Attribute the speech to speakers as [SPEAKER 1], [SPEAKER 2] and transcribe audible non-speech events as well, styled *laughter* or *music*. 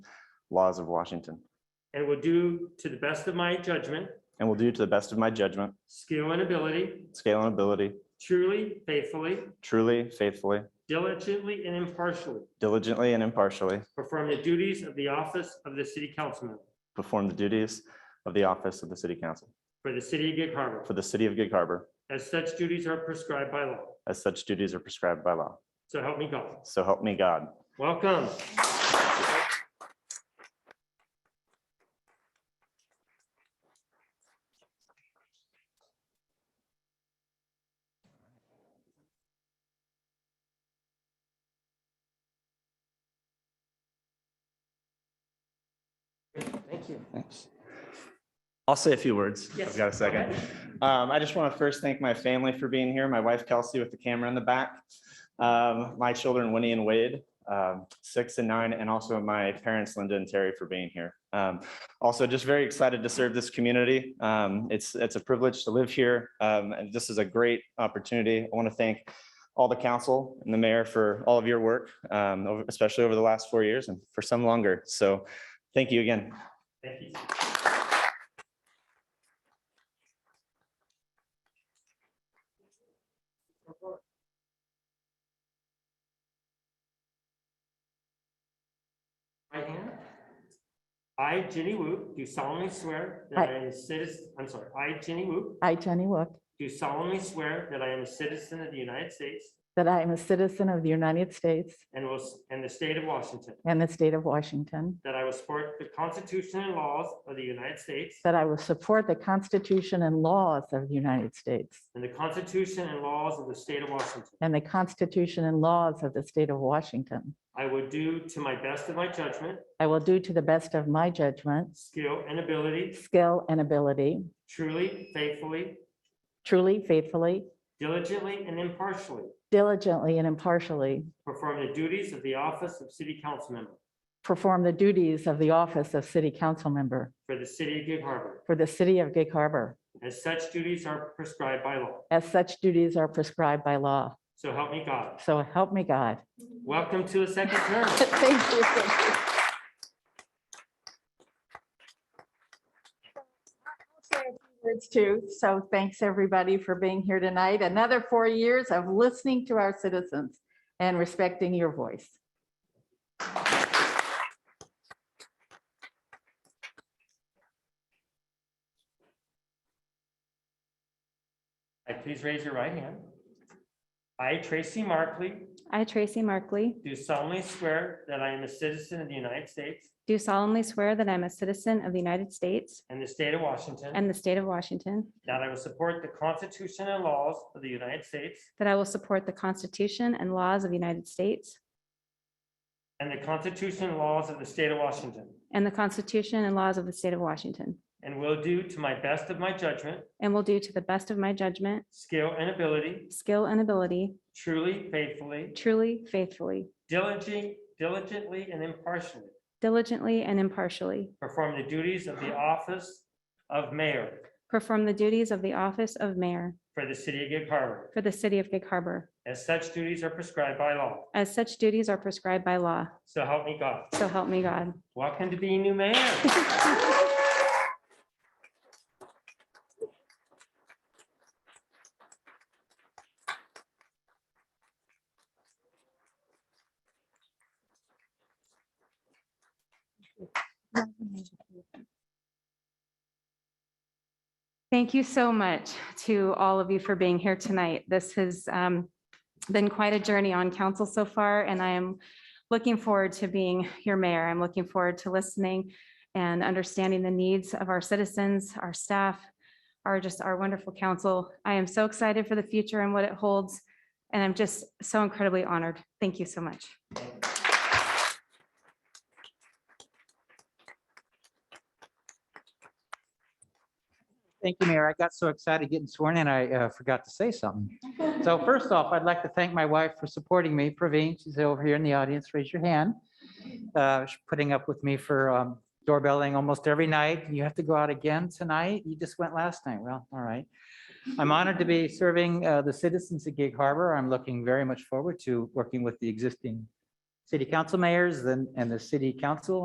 [SPEAKER 1] laws of Washington,
[SPEAKER 2] and will do to the best of my judgment,
[SPEAKER 1] and will do to the best of my judgment,
[SPEAKER 2] skill, and ability,
[SPEAKER 1] scale and ability,
[SPEAKER 2] truly, faithfully,
[SPEAKER 1] truly, faithfully,
[SPEAKER 2] diligently, and impartially,
[SPEAKER 1] diligently, and impartially,
[SPEAKER 2] perform the duties of the office of the city councilman
[SPEAKER 1] perform the duties of the office of the City Council
[SPEAKER 2] for the city of Gig Harbor,
[SPEAKER 1] for the City of Gig Harbor,
[SPEAKER 2] as such duties are prescribed by law.
[SPEAKER 1] as such duties are prescribed by law.
[SPEAKER 2] So help me God.
[SPEAKER 1] So help me God.
[SPEAKER 2] Welcome. Thank you.
[SPEAKER 1] Thanks. I'll say a few words. if
[SPEAKER 2] Yes,
[SPEAKER 1] I've got a
[SPEAKER 2] go
[SPEAKER 1] second. Um, I just want to first thank my family for being here, my wife Kelsey with the camera in the back. Um, my children Winnie and Wade, um, six and nine, and also my parents Linda and Terry for being here. Um, also just very excited to serve this community. Um, it's, it's a privilege to live here. um, and this is a great opportunity. I want to thank all the council and the mayor for all of your work, um, over- especially over the last four years and for some longer. So thank you again.
[SPEAKER 2] Thank you. Right hand. I, Jenny Wu, do solemnly swear that I am a citizen, I'm sorry, I, Jenny Wu,
[SPEAKER 3] I, Jenny Wook,
[SPEAKER 2] do solemnly swear that I am a citizen of the United States
[SPEAKER 3] that I am a citizen of the United States
[SPEAKER 2] and will, s- and the state of Washington,
[SPEAKER 3] and the state of Washington,
[SPEAKER 2] that I will support the Constitution and laws of the United States
[SPEAKER 3] that I will support the Constitution and laws of the United States
[SPEAKER 2] and the Constitution and laws of the state of Washington.
[SPEAKER 3] and the Constitution and laws of the state of Washington.
[SPEAKER 2] I will do to my best of my judgment,
[SPEAKER 3] I will do to the best of my judgment,
[SPEAKER 2] skill, and ability,
[SPEAKER 3] skill, and ability,
[SPEAKER 2] truly, faithfully,
[SPEAKER 3] truly, faithfully,
[SPEAKER 2] diligently, and impartially
[SPEAKER 3] diligently, and impartially
[SPEAKER 2] perform the duties of the office of city council member
[SPEAKER 3] perform the duties of the office of city council member
[SPEAKER 2] for the city of Gig Harbor,
[SPEAKER 3] for the city of Gig Harbor,
[SPEAKER 2] as such duties are prescribed by law.
[SPEAKER 3] as such duties are prescribed by law.
[SPEAKER 2] So help me God.
[SPEAKER 3] So help me God.
[SPEAKER 2] Welcome to a second term.
[SPEAKER 3] *laughs* Thank you. Words too. So thanks, everybody, for being here tonight. Another four years of listening to our citizens and respecting your voice.
[SPEAKER 2] I please raise your right hand. I, Tracy Markley,
[SPEAKER 4] I, Tracy Markley,
[SPEAKER 2] do solemnly swear that I am a citizen of the United States
[SPEAKER 4] do solemnly swear that I'm a citizen of the United States
[SPEAKER 2] and the state of Washington,
[SPEAKER 4] and the state of Washington,
[SPEAKER 2] that I will support the Constitution and laws of the United States
[SPEAKER 4] that I will support the Constitution and laws of the United States
[SPEAKER 2] And the Constitution and laws of the state of Washington.
[SPEAKER 4] and the Constitution and laws of the state of Washington,
[SPEAKER 2] And will do to my best of my judgment,
[SPEAKER 4] and will do to the best of my judgment,
[SPEAKER 2] skill, and ability,
[SPEAKER 4] skill, and ability,
[SPEAKER 2] truly, faithfully,
[SPEAKER 4] truly, faithfully,
[SPEAKER 2] diligently, diligently, and impartially,
[SPEAKER 4] diligently, and impartially,
[SPEAKER 2] perform the duties of the office of mayor
[SPEAKER 4] perform the duties of the office of mayor
[SPEAKER 2] for the city of Gig Harbor,
[SPEAKER 4] for the city of Gig Harbor,
[SPEAKER 2] as such duties are prescribed by law.
[SPEAKER 4] as such duties are prescribed by law.
[SPEAKER 2] So help me God.
[SPEAKER 4] So help me God.
[SPEAKER 2] Welcome to being new mayor.
[SPEAKER 4] Thank you so much to all of you for being here tonight. This has um, been quite a journey on council so far, and I am looking forward to being your mayor. I'm looking forward to listening and understanding the needs of our citizens, our staff, our just our wonderful council. I am so excited for the future and what it holds, and I'm just so incredibly honored. Thank you so much.
[SPEAKER 5] Thank you, Mayor. I got so excited getting sworn in, I uh, forgot to say something. So first off, I'd like to thank my wife for supporting me, Praveen. She's over here in the audience. Raise your hand. Uh, She's Putting up with me for um, doorbelling almost every night. You have to go out again tonight? You just went last night. Well, all right. I'm honored to be serving uh, the citizens of Gig Harbor. I'm looking very much forward to working with the existing city council mayors and and the city council